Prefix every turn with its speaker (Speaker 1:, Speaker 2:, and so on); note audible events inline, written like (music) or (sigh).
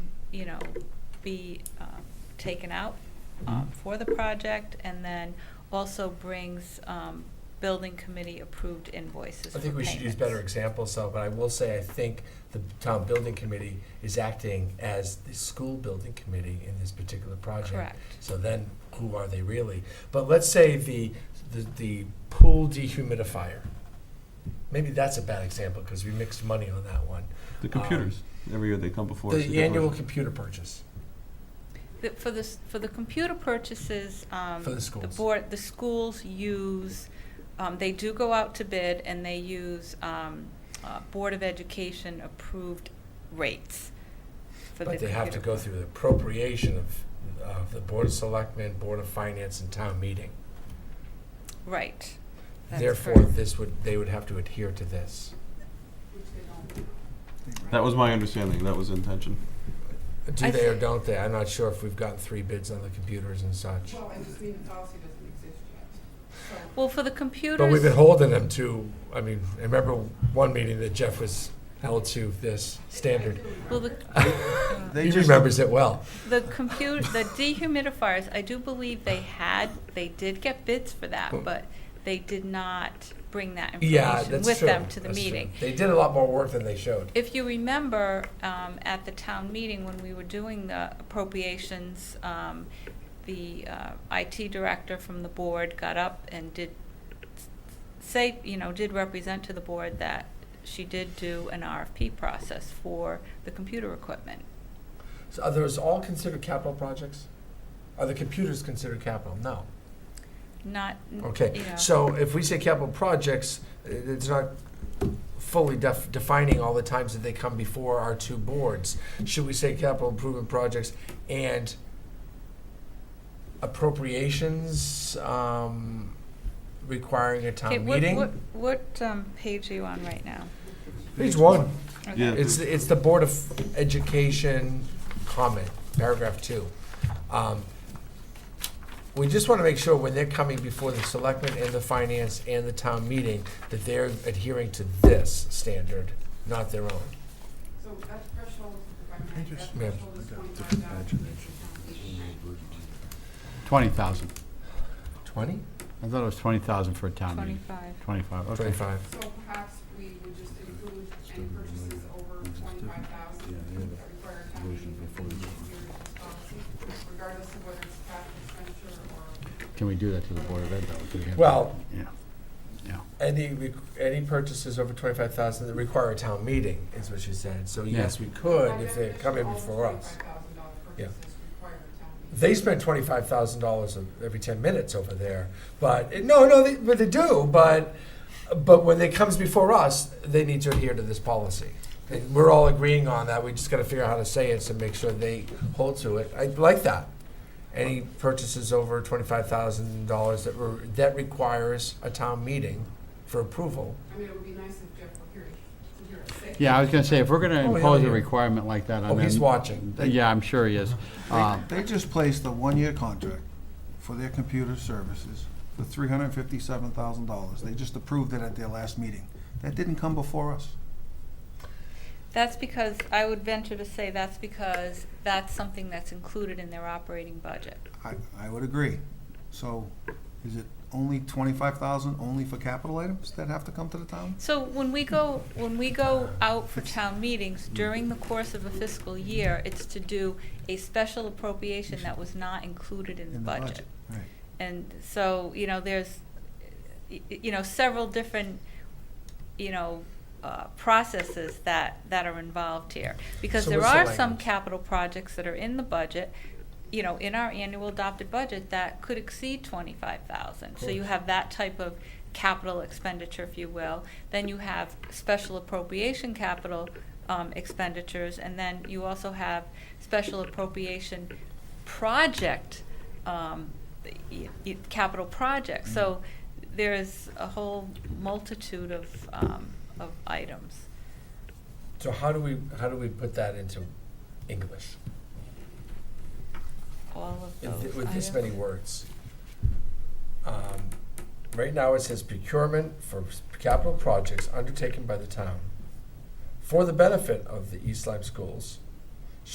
Speaker 1: you know, be um, taken out um,
Speaker 2: Mhm.
Speaker 1: for the project, and then also brings um, building committee-approved invoices
Speaker 3: I think
Speaker 1: for
Speaker 3: we should use
Speaker 1: payments.
Speaker 3: better examples, though, but I will say, I think the town building committee is acting as the school building committee in this particular project.
Speaker 1: Correct.
Speaker 3: So then, who are they really? But let's say the, the, the pool dehumidifier. Maybe that's a bad example, because we mixed money on that one.
Speaker 2: The computers, every year they come before us. to
Speaker 3: Um, The
Speaker 2: get
Speaker 3: annual
Speaker 2: those.
Speaker 3: computer purchase.
Speaker 1: The- For the, s- for the computer purchases, um,
Speaker 3: For the schools.
Speaker 1: board, the schools use, um, they do go out to bid, and they use um, uh, Board of Education-approved rates for the
Speaker 3: But they have to
Speaker 1: computer.
Speaker 3: go through the appropriation of, of the Board of Selectmen, Board of Finance, and town meeting.
Speaker 1: Right. That's
Speaker 3: Therefore,
Speaker 1: correct.
Speaker 3: this would, they would have to adhere to this.
Speaker 2: That was my understanding, that was the intention.
Speaker 3: Do
Speaker 1: I
Speaker 3: they or
Speaker 1: thi-
Speaker 3: don't they? I'm not sure if we've gotten three bids on the computers and such.
Speaker 4: Well, I just mean the policy doesn't exist yet.
Speaker 1: Well, for the computers.
Speaker 3: But we've been holding them to, I mean, I remember one meeting that Jeff was held to this standard.
Speaker 1: Well,
Speaker 3: (laughs)
Speaker 1: the, (laughs) uh,
Speaker 3: He remembers it well.
Speaker 1: the computer, the dehumidifiers, I do believe they had, they did get bids for that, but they did not bring that
Speaker 3: Yeah,
Speaker 1: information
Speaker 3: that's
Speaker 1: with
Speaker 3: true.
Speaker 1: them to the
Speaker 3: That's true.
Speaker 1: meeting.
Speaker 3: They did a lot more work than they showed.
Speaker 1: If you remember, um, at the town meeting, when we were doing the appropriations, um, the uh, IT director from the board got up and did s- say, you know, did represent to the board that she did do an RFP process for the computer equipment.
Speaker 3: So are those all considered capital projects? Are the computers considered capital? No.
Speaker 1: Not, n- you
Speaker 3: Okay,
Speaker 1: know.
Speaker 3: so if we say capital projects, i- it's not fully def- defining all the times that they come before our two boards. Should we say capital improvement projects and appropriations um, requiring a
Speaker 1: Okay,
Speaker 3: town
Speaker 1: what- What,
Speaker 3: meeting?
Speaker 1: what um, page are you on right now?
Speaker 3: Page one,
Speaker 1: Okay.
Speaker 2: Yeah.
Speaker 3: it's, it's the Board of Education comment, paragraph two. Um, We just want to make sure when they're coming before the selectmen and the finance and the town meeting, that they're adhering to this standard, not their own.
Speaker 4: So that threshold, if I might, that
Speaker 5: Interesting.
Speaker 4: threshold is twenty-five dollars.
Speaker 5: Twenty thousand.
Speaker 3: Twenty?
Speaker 5: I thought it was twenty thousand for a town meeting.
Speaker 1: Twenty-five.
Speaker 5: Twenty-five, okay.
Speaker 3: Twenty-five.
Speaker 4: So perhaps we would just include any purchases over twenty-five thousand that require a town meeting within the year's policy, regardless of whether it's capital expenditure or.
Speaker 5: Can we do that to the Board of Ed, though? Do we have-
Speaker 3: Well,
Speaker 5: Yeah, yeah.
Speaker 3: any, re- any purchases over twenty-five thousand that require a town meeting, is what she said. So yes, we could if they're coming before us.
Speaker 4: Twenty-five thousand dollar
Speaker 3: Yeah.
Speaker 4: purchases require a town meeting.
Speaker 3: They spend twenty-five thousand dollars every ten minutes over there, but, no, no, they, but they do, but, but when it comes before us, they need to adhere to this policy. And we're all agreeing on that, we just gotta figure out how to say it to make sure they hold to it. I like that. Any purchases over twenty-five thousand dollars that were, that requires a town meeting for approval.
Speaker 4: I mean, it would be nice if Jeff were here to hear it say.
Speaker 5: Yeah, I was gonna say, if we're
Speaker 3: Oh,
Speaker 5: gonna
Speaker 3: yeah,
Speaker 5: impose a
Speaker 3: yeah.
Speaker 5: requirement like that on
Speaker 3: Oh,
Speaker 5: them.
Speaker 3: he's watching.
Speaker 5: Yeah, I'm sure he is. Uh,
Speaker 6: They just placed a one-year contract for their computer services for three hundred and fifty-seven thousand dollars. They just approved it at their last meeting. That didn't come before us.
Speaker 1: That's because, I would venture to say that's because that's something that's included in their operating budget.
Speaker 6: I, I would agree. So is it only twenty-five thousand only for capital items that have to come to the town?
Speaker 1: So when we go, when we go out for town meetings during the course of a fiscal year, it's to do a special appropriation that was not included in the budget.
Speaker 6: Right.
Speaker 1: And so, you know, there's, y- y- you know, several different, you know, uh, processes that, that are involved here. Because
Speaker 3: So
Speaker 1: there
Speaker 3: what's the
Speaker 1: are some
Speaker 3: language?
Speaker 1: capital projects that are in the budget, you know, in our annual adopted budget that could exceed twenty-five thousand. So you
Speaker 3: Course.
Speaker 1: have that type of capital expenditure, if you will. Then you have special appropriation capital um, expenditures, and then you also have special appropriation project, um, y- y- capital projects. So
Speaker 3: Mm-hmm.
Speaker 1: there is a whole multitude of, um, of items.
Speaker 3: So how do we, how do we put that into English?
Speaker 1: All of
Speaker 3: in th-
Speaker 1: those.
Speaker 3: with this
Speaker 1: items.
Speaker 3: many words. Um, Right now, it says procurement for s- capital projects undertaken by the town for the benefit of the East Lyme schools